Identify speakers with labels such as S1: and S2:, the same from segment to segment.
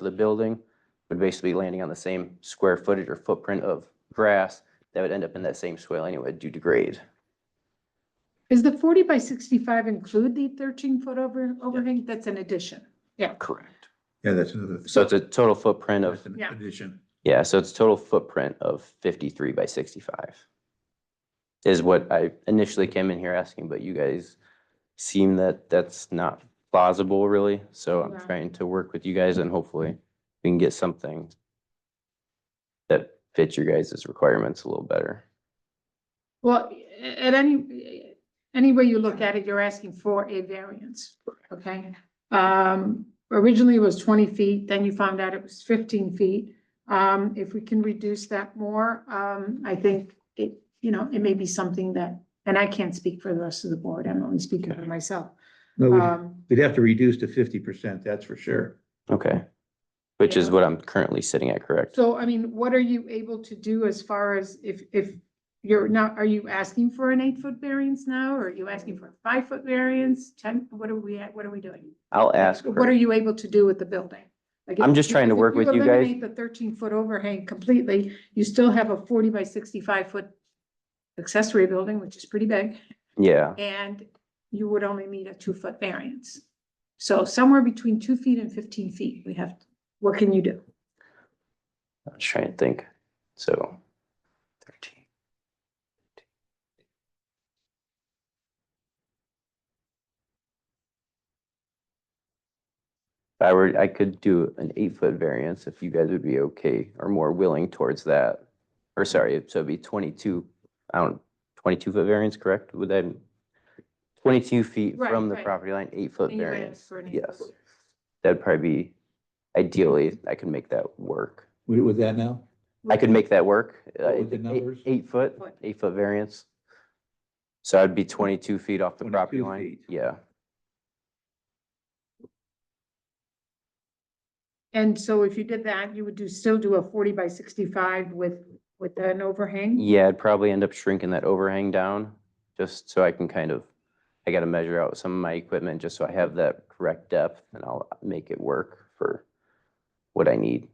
S1: for the building would basically be landing on the same square footage or footprint of grass that would end up in that same swale anyway due to grade.
S2: Is the forty by sixty-five include the thirteen foot over, overhang? That's an addition.
S1: Correct.
S3: Yeah, that's another.
S1: So it's a total footprint of,
S3: that's an
S2: Yeah.
S3: Addition.
S1: yeah, so it's total footprint of fifty-three by sixty-five is what I initially came in here asking, but you guys seem that that's not plausible really. So I'm
S2: Yeah.
S1: trying to work with you guys and hopefully we can get something that fits your guys' requirements a little better.
S2: Well, a- at any, any way you look at it, you're asking for a variance, okay? Um, originally it was twenty feet, then you found out it was fifteen feet. Um, if we can reduce that more, um, I think it, you know, it may be something that, and I can't speak for the rest of the board, I'm only speaking for myself.
S3: No, we'd-
S2: Um,
S3: we'd have to reduce to fifty percent, that's for sure.
S1: Okay. Which is
S2: Yeah.
S1: what I'm currently sitting at, correct?
S2: so I mean, what are you able to do as far as if, if you're not, are you asking for an eight-foot variance now? Or are you asking for a five-foot variance, ten, what are we, at? what are we doing?
S1: I'll ask
S2: What are
S1: her.
S2: you able to do with the building? Like,
S1: I'm
S2: if-
S1: just trying to
S2: because if
S1: work with you guys.
S2: eliminate The thirteen-foot overhang completely, you still have a forty by sixty-five foot accessory building, which is pretty big,
S1: Yeah,
S2: and you would only need a two-foot variance. So somewhere between two feet and fifteen feet, we have, what can you do?
S1: I was trying to think. So thirteen. If I were, I could do an eight-foot variance if you guys would be okay or more willing towards that. Or sorry, so it'd be twenty-two, I don't, twenty-two foot variance, correct? Would that, twenty-two feet
S2: Right,
S1: from the
S2: right.
S1: property line, eight-foot
S2: And you might ask
S1: variance?
S2: for an eight-foot
S1: Yes. That'd probably be, ideally, I could make that work.
S3: With, with that now?
S1: I could make that work. uh,
S3: What would the
S1: eight-
S3: numbers?
S1: Eight foot,
S2: Foot.
S1: eight foot variance. So I'd be twenty-two feet off the
S3: 22
S1: property line.
S3: feet.
S1: Yeah,
S2: And so if you did that, you would do, still do a forty by sixty-five with, with an overhang?
S1: yeah, I'd probably end up shrinking that overhang down, just so I can kind of, I gotta measure out some of my equipment, just so I have that correct depth, and I'll make it work for what I need.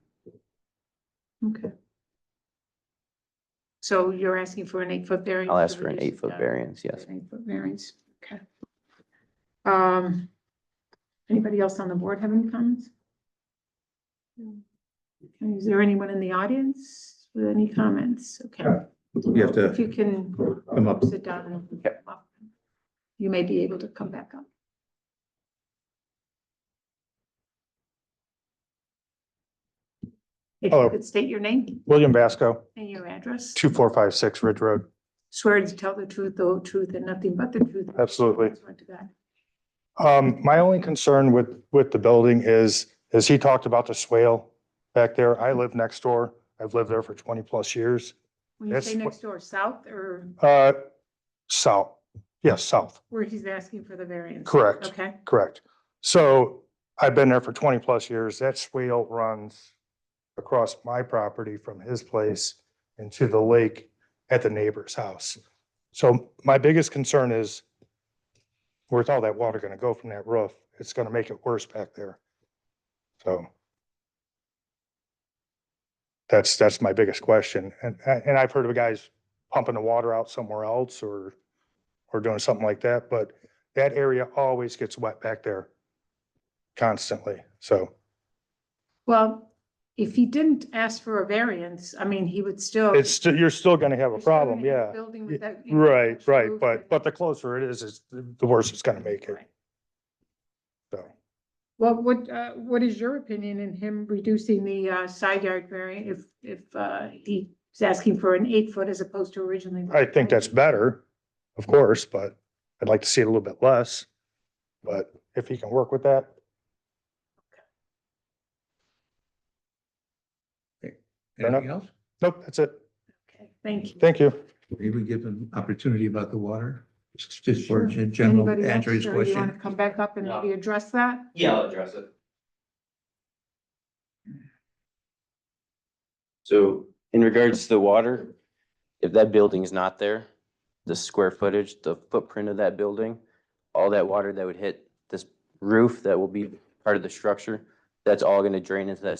S2: Okay. So you're asking for an eight-foot variance?
S1: I'll
S2: to
S1: ask for an
S2: reduce it
S1: eight-foot
S2: down
S1: variance,
S2: to
S1: yes.
S2: an Eight-foot variance, okay. Um, anybody else on the board have any comments? Okay, Is there anyone in the audience with any comments? Okay,
S3: You have
S2: if you
S3: to
S2: can
S3: come up.
S2: sit down and come up, you may be able to come back up. If
S4: Hello.
S2: you could state your name
S4: William Vasco,
S2: and your address.
S4: two four five six Ridge Road.
S2: Swear to tell the truth, the whole truth, and nothing but the truth.
S4: Absolutely.
S2: Swear to God.
S4: Um, my only concern with, with the building is, is he talked about the swale back there. I live next door. I've lived there for twenty plus years.
S2: When you say
S4: That's what-
S2: next door, south or
S4: Uh, south, yes, south,
S2: where he's asking for the variance?
S4: correct,
S2: Okay,
S4: correct. So I've been there for twenty plus years. That swale runs across my property from his place and to the lake at the neighbor's house. So my biggest concern is where's all that water gonna go from that roof? It's gonna make it worse back there. So that's, that's my biggest question. And, and I've heard of guys pumping the water out somewhere else or, or doing something like that, but that area always gets wet back there constantly. So
S2: well, if he didn't ask for a variance, I mean, he would still.
S4: it's, still- you're still gonna have
S2: You're
S4: a
S2: still gonna
S4: problem,
S2: have a
S4: yeah.
S2: Building
S4: Y-
S2: with that. you know,
S4: Right,
S2: thatched
S4: right,
S2: roof
S4: but,
S2: with-
S4: but the closer it is, it's, the worse it's gonna make it,
S2: Right.
S4: so.
S2: Well, what, uh, what is your opinion in him reducing the, uh, side yard variance if, if, uh, he's asking for an eight foot as opposed to originally?
S4: I think that's better, of course, but I'd like to see it a little bit less. But if he can work with that,
S3: Anything else?
S4: nope, that's it.
S2: Okay, Thank you.
S4: Thank you.
S3: Maybe give an opportunity about the water, just for
S2: Sure.
S3: a general
S2: Anybody else,
S3: answer his
S2: or You want to
S3: question.
S2: come back up and
S1: No.
S2: maybe address that?
S1: Yeah, I'll address it. So in regards to the water, if that building is not there, the square footage, the footprint of that building, all that water that would hit this roof that will be part of the structure, that's all gonna drain into that